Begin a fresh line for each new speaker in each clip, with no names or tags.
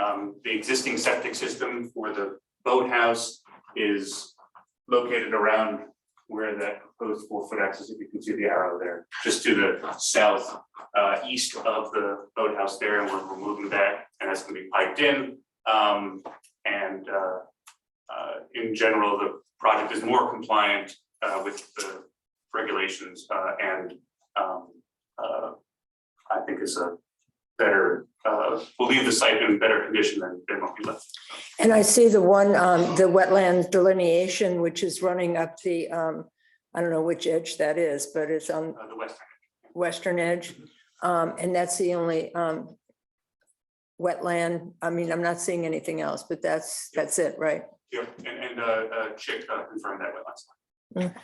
Um, the existing septic system for the boathouse is located around where that proposed four-foot axis, if you can see the arrow there, just to the south, uh, east of the boathouse there, and we're removing that, and that's gonna be piped in. Um, and, uh, uh, in general, the project is more compliant, uh, with the regulations, uh, and, um, uh, I think it's a better, uh, will leave the site in better condition than, than what we left.
And I see the one, um, the wetland delineation, which is running up the, um, I don't know which edge that is, but it's on
Uh, the west,
western edge. Um, and that's the only, um, wetland. I mean, I'm not seeing anything else, but that's, that's it, right?
yeah, and, and, uh, uh, Chick uh, confirmed that with us.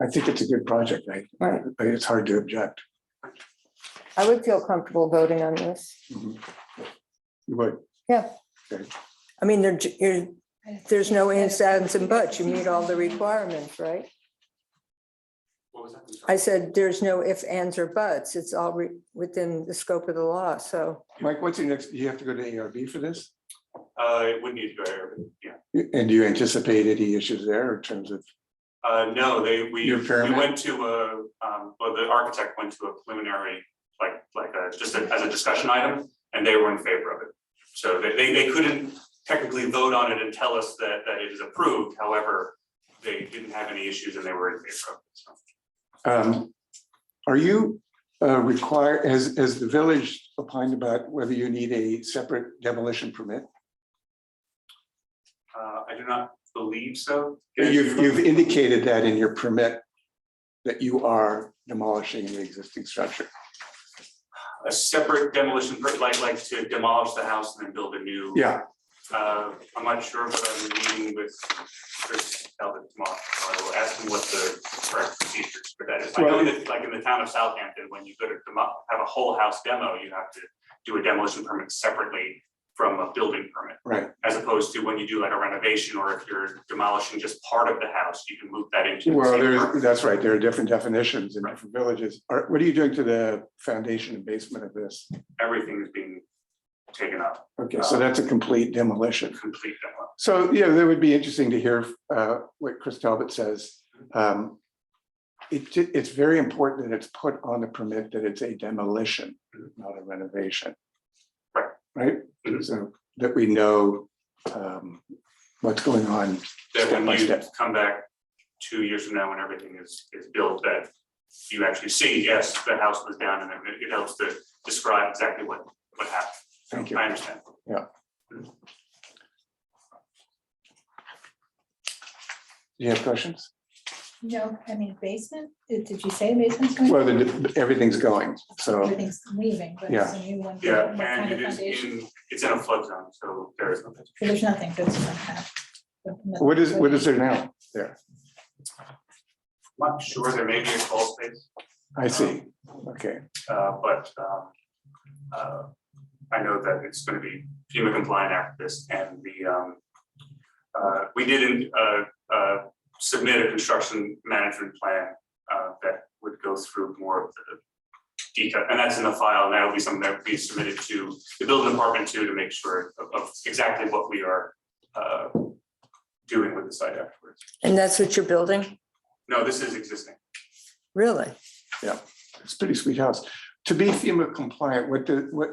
I think it's a good project, I,
Right.
I- it's hard to object.
I would feel comfortable voting on this.
You would,
I mean, there, you're, there's no ifs, ands and buts. You meet all the requirements, right?
What was that? I'm sorry.
I said, there's no ifs, ands or buts. It's all re- within the scope of the law. So
Mike, what's your next, you have to go to ARB for this?
Uh, it would need to go air, but yeah.
And do you anticipate any issues there in terms of,
Uh, no, they, we,
Your
we
pyramid?
went to a, um, well, the architect went to a preliminary, like, like a, just a- as a discussion item, and they were in favor of it. So they, they, they couldn't technically vote on it and tell us that, that it is approved, however, they didn't have any issues and they were in favor of it, so.
um, are you uh, require, as, as the village opined about whether you need a separate demolition permit?
Uh, I do not believe so.
You've, you've indicated that in your permit that you are demolishing the existing structure.
A separate demolition, per- like, like to demolish the house and then build a new.
Yeah,
Uh, I'm not sure, but I'm meeting with Chris Talbot tomorrow, so I will ask him what the correct procedure for that is. I know
Well-
that, like in the town of Southampton, when you go to demo, have a whole house demo, you have to do a demolition permit separately from a building permit,
right.
as opposed to when you do like a renovation, or if you're demolishing just part of the house, you can move that into. the
Well,
same
there,
permit.
that's right, there are different definitions in
Right.
different villages. Are, what are you doing to the foundation and basement of this?
Everything is being taken up,
Okay, so that's a complete demolition.
complete demo.
So, yeah, that would be interesting to hear uh, what Chris Talbot says. Um, It, ju- it's very important that it's put on the permit that it's a demolition, not a renovation.
Right.
Right?
Mhm.
So that we know um, what's going on.
that
Step by
when you
step.
come back two years from now, when everything is, is built, that you actually see, yes, the house was down, and it- it helps to describe exactly what, what happened.
Thank you.
I understand.
Do you have questions?
No, I mean basement, did did you say basement's going?
Well, the- everything's going, so,
Everything's leaving, but
Yeah.
it's a new one.
Yeah,
What
and
kind of
it is
foundation?
in, it's in a flood zone, so there is nothing.
So There's nothing, that's not half.
what is, what is there now? There,
Not sure, there may be a crawl space,
I see. Okay,
uh, but, um, uh, I know that it's gonna be FEMA compliant after this, and the, um, uh, we didn't, uh, uh, submit a construction management plan uh, that would go through more of the detail, and that's in the file, and that'll be something that we submitted to the building department too, to make sure of, of exactly what we are uh, doing with the site afterwards.
And that's what you're building?
No, this is existing.
Really?
it's a pretty sweet house. To be FEMA compliant, what, do- what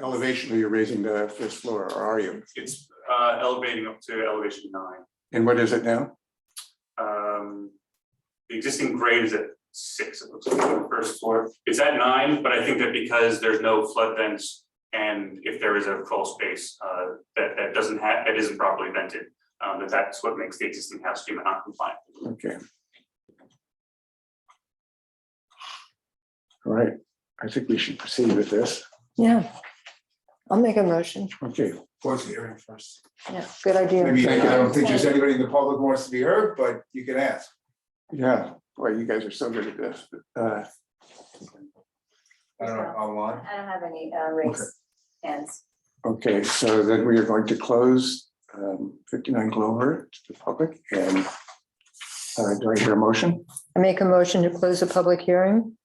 elevation are you raising the first floor, or are you?
It's uh, elevating up to elevation nine.
And what is it now?
Um, The existing grade is at six, it looks like, on the first floor. It's at nine, but I think that because there's no flood vents and if there is a crawl space uh, that, that doesn't have, that isn't properly vented, um, that that's what makes the existing house FEMA non-compliant.
Okay. All right, I think we should proceed with this.
Yeah. I'll make a motion.
Okay,
close the hearing first.
Yeah, good idea.
Maybe,
Thank you.
I don't think there's anybody in the public who wants to be heard, but you can ask.
yeah, boy, you guys are so good at this. Uh,
I don't know, online.
I don't have any uh, raised hands.
Okay, so then we are going to close um, 59 Glover to the public and uh, do I hear a motion?
I make a motion to close the public hearing.